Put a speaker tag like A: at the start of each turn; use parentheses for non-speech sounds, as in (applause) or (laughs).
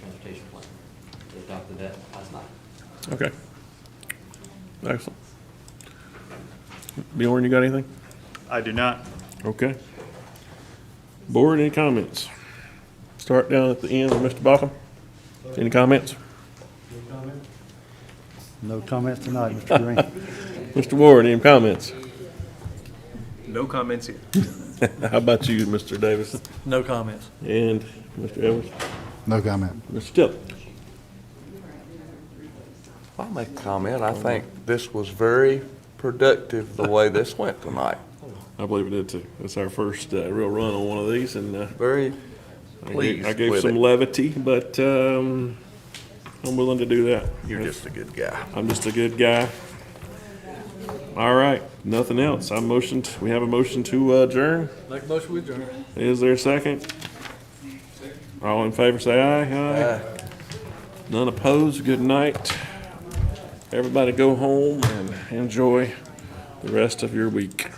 A: transportation plan. They adopted that last night.
B: Okay. Excellent. Bjorn, you got anything?
C: I do not.
B: Okay. Board, any comments? Start down at the end with Mr. Bockham. Any comments?
D: No comments tonight, Mr. Green.
B: Mr. Ward, any comments? (laughs)
E: No comments here.
B: How about you, Mr. Davis?
E: No comments.
B: And Mr. Evans?
D: No comment.
B: Mr. Tillman?
F: I'll make a comment. I think this was very productive, the way this went tonight.
B: I believe it did too. It's our first uh, real run on one of these and uh,
F: Very
B: I gave-
F: pleased
B: I gave
F: with
B: some
F: it.
B: levity, but um, I'm willing to do that.
F: You're just a good guy.
B: I'm just a good guy. All right, nothing else. I motioned, we have a motion to uh, adjourn.
E: Make motion with adjourn.
B: Is there a second? All in favor, say aye. Aye. None opposed, good night. Everybody go home and enjoy the rest of your week.